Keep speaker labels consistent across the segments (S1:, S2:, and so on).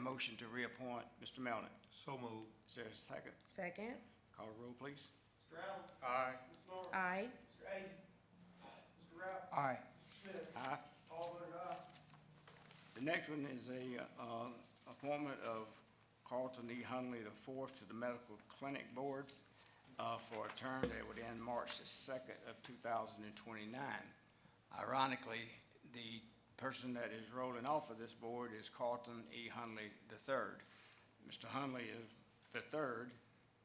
S1: motion to reappoint Mr. Melnick?
S2: So moved.
S1: Is there a second?
S3: Second.
S1: Call the roll, please.
S4: Mr. Allen.
S2: Aye.
S4: Ms. Norman.
S3: Aye.
S4: Mr. Agee. Mr. Ralph.
S2: Aye.
S4: Smith.
S1: Aye.
S4: All voted aye.
S1: The next one is a, uh, appointment of Carlton E. Hunley the fourth to the Medical Clinic Board, uh, for a term that would end March the second of two thousand and twenty-nine. Ironically, the person that is rolling off of this board is Carlton E. Hunley the third. Mr. Hunley is, the third,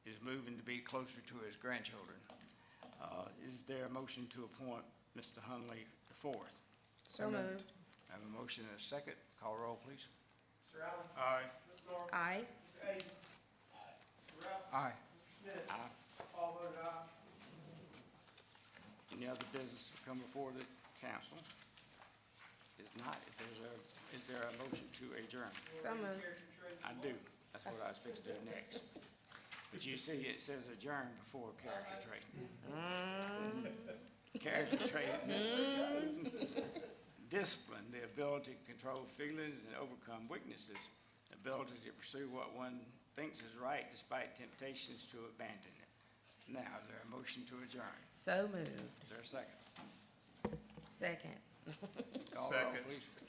S1: is moving to be closer to his grandchildren. Uh, is there a motion to appoint Mr. Hunley the fourth?
S3: So moved.
S1: I have a motion and a second. Call roll, please.
S4: Mr. Allen.
S2: Aye.
S4: Ms. Norman.
S3: Aye.
S4: Mr. Agee. Mr. Ralph.
S2: Aye.
S4: Mr. Smith.
S1: Aye.
S4: All voted aye.
S1: Any other business to come before the council? Is not, if there's a, is there a motion to adjourn?
S3: So moved.
S1: I do. That's what I was fixing to do next. But you see, it says adjourn before character trait. Character trait. Discipline, the ability to control feelings and overcome weaknesses, ability to pursue what one thinks is right despite temptations to abandon it. Now, is there a motion to adjourn?
S3: So moved.
S1: Is there a second?
S3: Second.
S1: Call roll,
S2: Second.
S1: please.